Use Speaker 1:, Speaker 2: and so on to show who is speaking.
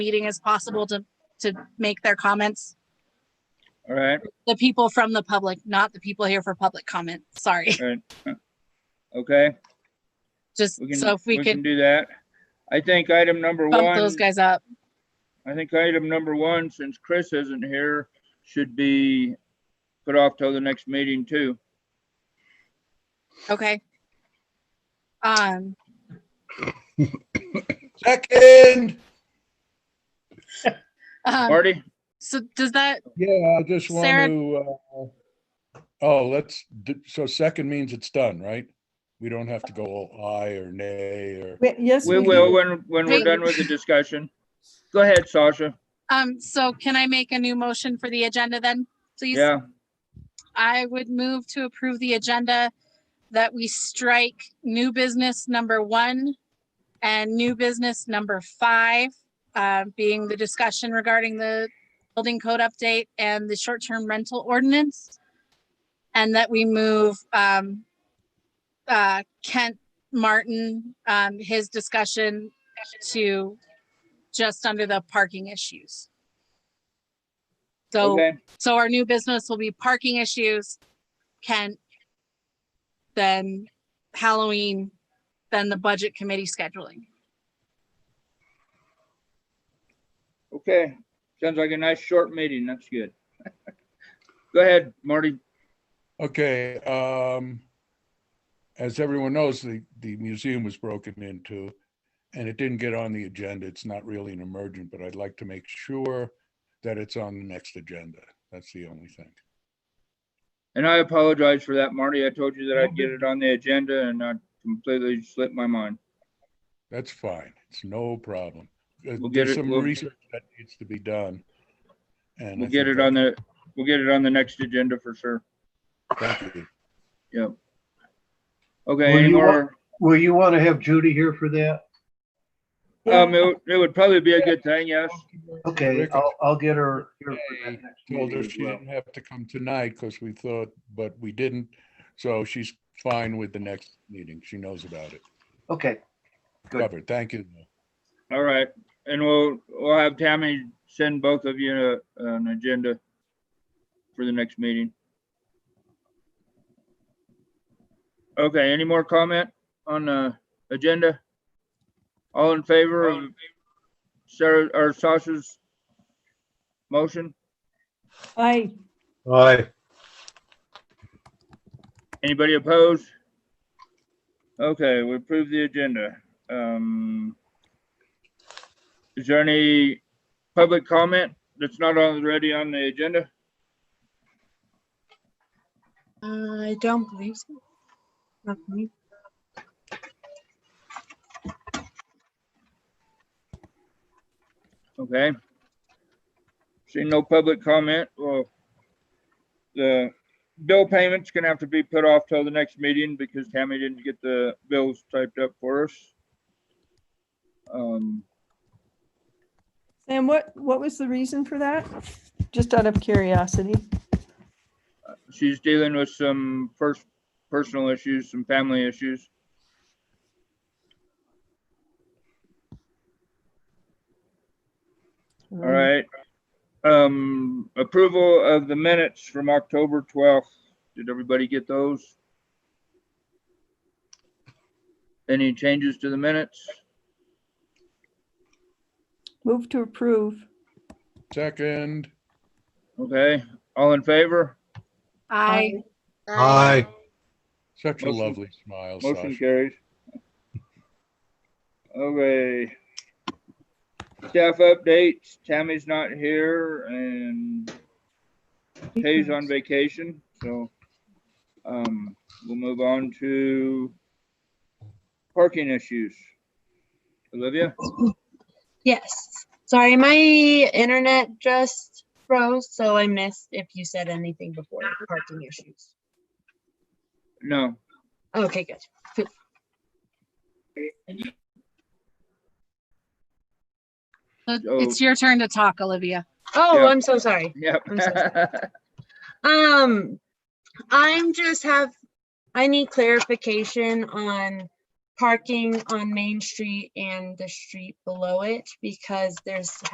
Speaker 1: meeting as possible to, to make their comments.
Speaker 2: All right,
Speaker 1: The people from the public, not the people here for public comment. Sorry.
Speaker 2: all right. Okay,
Speaker 1: Just
Speaker 2: we can,
Speaker 1: so if we
Speaker 2: we can
Speaker 1: could
Speaker 2: do that. I think item number
Speaker 1: bump those
Speaker 2: one,
Speaker 1: guys up.
Speaker 2: I think item number one, since Chris isn't here, should be put off till the next meeting too.
Speaker 1: Okay. Um,
Speaker 3: Second.
Speaker 1: um,
Speaker 2: Marty,
Speaker 1: so does that,
Speaker 3: Yeah, I just want
Speaker 1: Sarah-
Speaker 3: to, uh, oh, let's, d- so second means it's done, right? We don't have to go all aye or nay or,
Speaker 4: We- Yes,
Speaker 2: we
Speaker 4: we
Speaker 2: will
Speaker 4: do.
Speaker 2: when, when we're
Speaker 1: Wait.
Speaker 2: done with the discussion. Go ahead, Sasha.
Speaker 1: um, so can I make a new motion for the agenda then, please?
Speaker 2: Yeah,
Speaker 1: I would move to approve the agenda that we strike new business number one and new business number five, uh, being the discussion regarding the building code update and the short-term rental ordinance. And that we move um, uh, Kent Martin, um, his discussion to just under the parking issues. So
Speaker 2: okay,
Speaker 1: so our new business will be parking issues, Kent, then Halloween, then the budget committee scheduling.
Speaker 2: okay. Sounds like a nice short meeting. That's good. Go ahead, Marty.
Speaker 3: okay, um, as everyone knows, the, the museum was broken into and it didn't get on the agenda. It's not really an emergent, but I'd like to make sure that it's on the next agenda. That's the only thing.
Speaker 2: And I apologize for that, Marty. I told you that I'd get it on the agenda and I completely slipped my mind.
Speaker 3: That's fine. It's no problem. Uh,
Speaker 2: We'll get
Speaker 3: There's
Speaker 2: it-
Speaker 3: some
Speaker 2: we'll-
Speaker 3: research that needs to be done. and I
Speaker 2: We'll
Speaker 3: think
Speaker 2: get it
Speaker 3: that's-
Speaker 2: on the, we'll get it on the next agenda for sure.
Speaker 3: Thank you.
Speaker 2: Okay,
Speaker 5: Well,
Speaker 2: any
Speaker 5: you
Speaker 2: more?
Speaker 5: Will you want to have Judy here for that?
Speaker 2: Um, it would, it would probably be a good thing, yes.
Speaker 5: Okay,
Speaker 3: Rick
Speaker 5: I'll, I'll get her here for that next
Speaker 3: Told
Speaker 5: meeting
Speaker 3: her
Speaker 5: as
Speaker 3: she
Speaker 5: well.
Speaker 3: didn't have to come tonight because we thought, but we didn't. So she's fine with the next meeting. She knows about it.
Speaker 5: Okay, Good.
Speaker 3: Covered. Thank you.
Speaker 2: All right, and we'll, we'll have Tammy send both of you a- an agenda for the next meeting. Okay, any more comment on the agenda? All in favor of Sarah, or Sasha's motion?
Speaker 4: I,
Speaker 6: Aye,
Speaker 2: Anybody opposed? Okay, we approve the agenda. Um, is there any public comment that's not already on the agenda?
Speaker 7: Uh, I don't believe so. Not me.
Speaker 2: Okay. See, no public comment. Well, the bill payments gonna have to be put off till the next meeting because Tammy didn't get the bills typed up for us. Um,
Speaker 4: Sam, what, what was the reason for that? Just out of curiosity.
Speaker 2: she's dealing with some first personal issues, some family issues. All
Speaker 4: Mm-hmm.
Speaker 2: right. Um, approval of the minutes from October twelfth. Did everybody get those? Any changes to the minutes?
Speaker 4: Move to approve.
Speaker 3: Second,
Speaker 2: Okay, all in favor?
Speaker 1: I,
Speaker 6: aye,
Speaker 3: such a
Speaker 2: Motion-
Speaker 3: lovely smile,
Speaker 2: Motion
Speaker 3: Sasha.
Speaker 2: carries. Okay. Staff updates. Tammy's not here and Tay's on vacation, so um, we'll move on to parking issues. Olivia?
Speaker 7: Oh. Yes. Sorry, my internet just froze, so I missed if you said anything before the parking issues.
Speaker 2: No.
Speaker 7: Okay, good.
Speaker 1: it's your turn to talk, Olivia.
Speaker 7: Oh,
Speaker 2: Yeah.
Speaker 7: I'm so sorry.
Speaker 2: Yep.
Speaker 7: I'm so Um, I'm just have, I need clarification on parking on Main Street and the street below it because there's